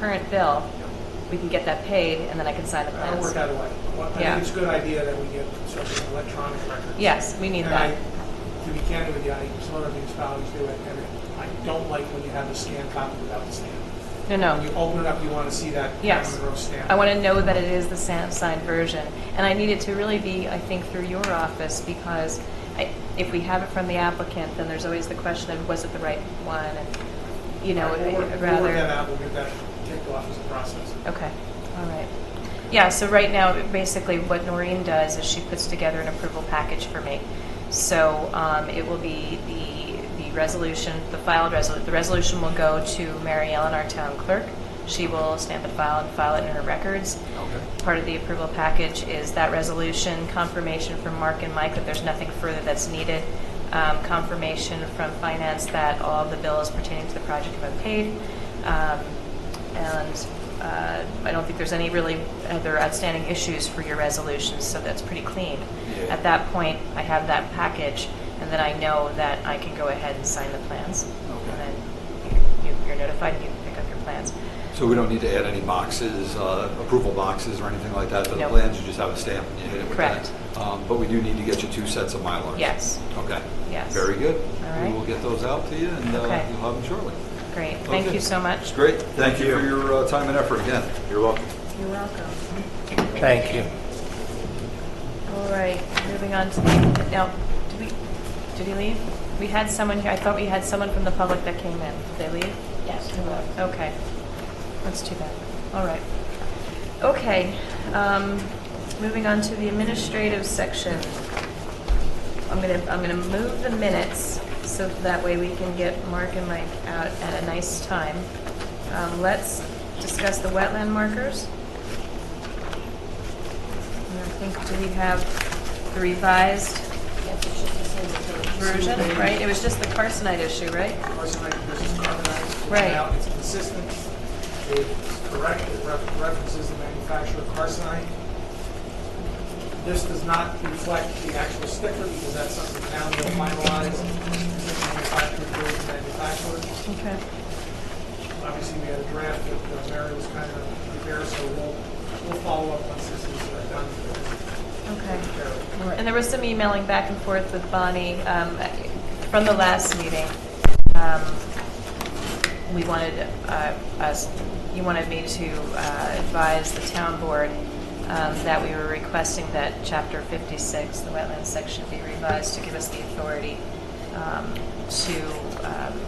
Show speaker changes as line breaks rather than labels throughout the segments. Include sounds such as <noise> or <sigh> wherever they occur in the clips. current bill, we can get that paid, and then I can sign the
I'll
plans.
work out a way. Well, I
Yeah.
think it's a good idea that we get sort of an electronic record.
Yes, we need
And
that.
I- To be candid with you, I, some other municipalities do it, and I don't like when you have the scanned copy without the stamp.
No,
When you
no.
open it up, you want to see that
Yes.
Monroe stamp.
I want to know that it is the sa- signed version. And I need it to really be, I think, through your office because I, if we have it from the applicant, then there's always the question of was it the right one? And, you know,
All right, we'll work-
I'd
We'll work
rather.
that out, we'll get that kicked off as a process.
Okay, all right. Yeah, so right now, basically what Noreen does is she puts together an approval package for me. So um, it will be the, the resolution, the filed resolution, the resolution will go to Mary Ellen, our town clerk. She will stamp and file and file it in her records.
Okay.
Part of the approval package is that resolution, confirmation from Mark and Mike that there's nothing further that's needed, um, confirmation from finance that all of the bills pertaining to the project have been paid, um, and uh, I don't think there's any really other outstanding issues for your resolutions, so that's pretty clean.
Yeah.
At that point, I have that package, and then I know that I can go ahead and sign the plans. And then you- you're notified, you can pick up your plans.
So we don't need to add any boxes, uh, approval boxes or anything like that to the
No.
plans? You just have a stamp and you hit it with that?
Correct.
Um, But we do need to get you two sets of Mylars?
Yes.
Okay.
Yes.
Very good.
All
We
right.
will get those out to you and uh,
Okay.
you'll have them shortly.
Great, thank
Okay.
you so much.
Great. Thank you for your uh, time and effort again. You're welcome.
You're welcome.
Thank you.
All right, moving on to the, now, did we, did he leave? We had someone here, I thought we had someone from the public that came in. Did they leave?
Yes.
Okay, that's too bad. All right. Okay, um, moving on to the administrative section. I'm gonna, I'm gonna move the minutes so that way we can get Mark and Mike out at a nice time. Um, let's discuss the wetland markers. And I think, do we have the revised
Yes, it's just the same as the-
version, right? It was just the carcinite issue, right?
Carcinite versus carbonite.
Right.
Now, it's consistent, it's correct, it ref- references the manufacturer of carcinite. This does not reflect the actual sticker because that's something the town will finalize. Manufacturer versus manufacturer.
Okay.
Obviously, we had a draft that uh, Mary was kind of prepared, so we'll, we'll follow up once this is uh, done.
Okay.
Carol.
And there was some emailing back and forth with Bonnie um, from the last meeting. Um, We wanted uh, us, you wanted me to uh, advise the town board um, that we were requesting that Chapter 56, the wetland section, be revised to give us the authority um, to, um,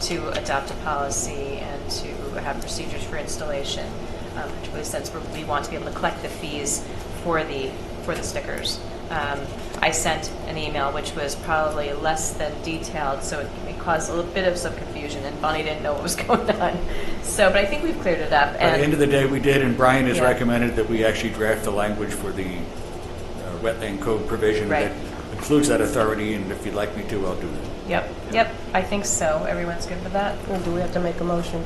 to adopt a policy and to have procedures for installation, um, particularly since we're- we want to be able to collect the fees for the, for the stickers. Um, I sent an email which was probably less than detailed, so it it caused a little bit of some confusion, and Bonnie didn't know what was <laughs> going on. So, but I think we've cleared it up.
At the end of the day, we did, and Brian has
Yeah.
recommended that we actually draft the language for the uh, wetland code provision
Right.
that includes that authority, and if you'd like me to, I'll do that.
Yep, yep, I think so. Everyone's good with that?
Well, Do we have to make a motion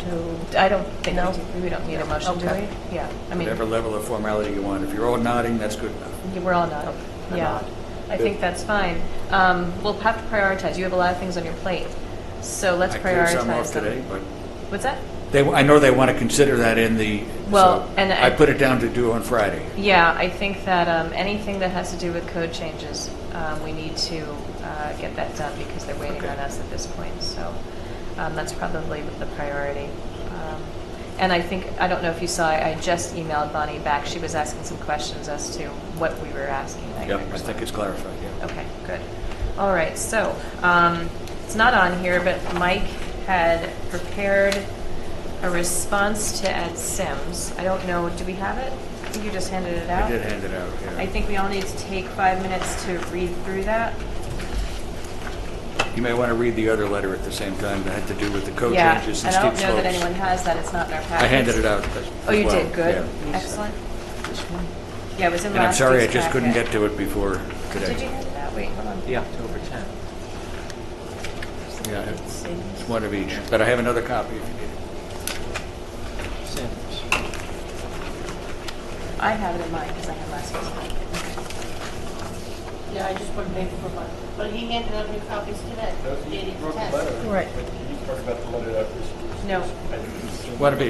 to?
I don't think,
No?
we do- we don't need a motion, do
Okay.
we? Yeah, I mean,
Whatever level of formality you want. If you're all nodding, that's good enough.
we're all not,
We're
yeah.
not.
I think that's fine. Um, We'll have to prioritize. You have a lot of things on your plate, so let's
I cleared some
prioritize
off
them.
today, but
What's that?
they, I know they want to consider that in the,
Well,
so
and
I
I-
put it down to do on Friday.
Yeah, I think that um, anything that has to do with code changes, um, we need to uh, get that done because they're waiting
Okay.
on us at this point. So um, that's probably the priority. Um, And I think, I don't know if you saw, I I just emailed Bonnie back. She was asking some questions as to what we were asking. I
Yep, I
responded.
think it's clarified, yeah.
Okay, good. All right, so, um, it's not on here, but Mike had prepared a response to Ed Sims. I don't know, do we have it? I think you just handed it out.
I did hand it out, yeah.
I think we all need to take five minutes to read through that.
You may want to read the other letter at the same time that had to do with the code
Yeah,
changes
and I
and steep
don't
slopes.
know that anyone has that, it's not in our package.
I handed it out. as
Oh, you
well,
did, good,
yeah.
excellent. Yeah, it was in
And I'm
last
sorry, I
week's
just couldn't
packet.
get to it before today.
Did you hand it out? Wait, hold on.
The October 10th.
Yeah, it's it's one of each, but I have another copy if you need it.
Sims.
I have it in mine because I had last week's packet.
Yeah, I just put paper for mine. But he handed out new copies today.
Those who
Dated
wrote the
test.
letter,
Right.
but you talked about the letter that was-
No.
I think it's-
One of each.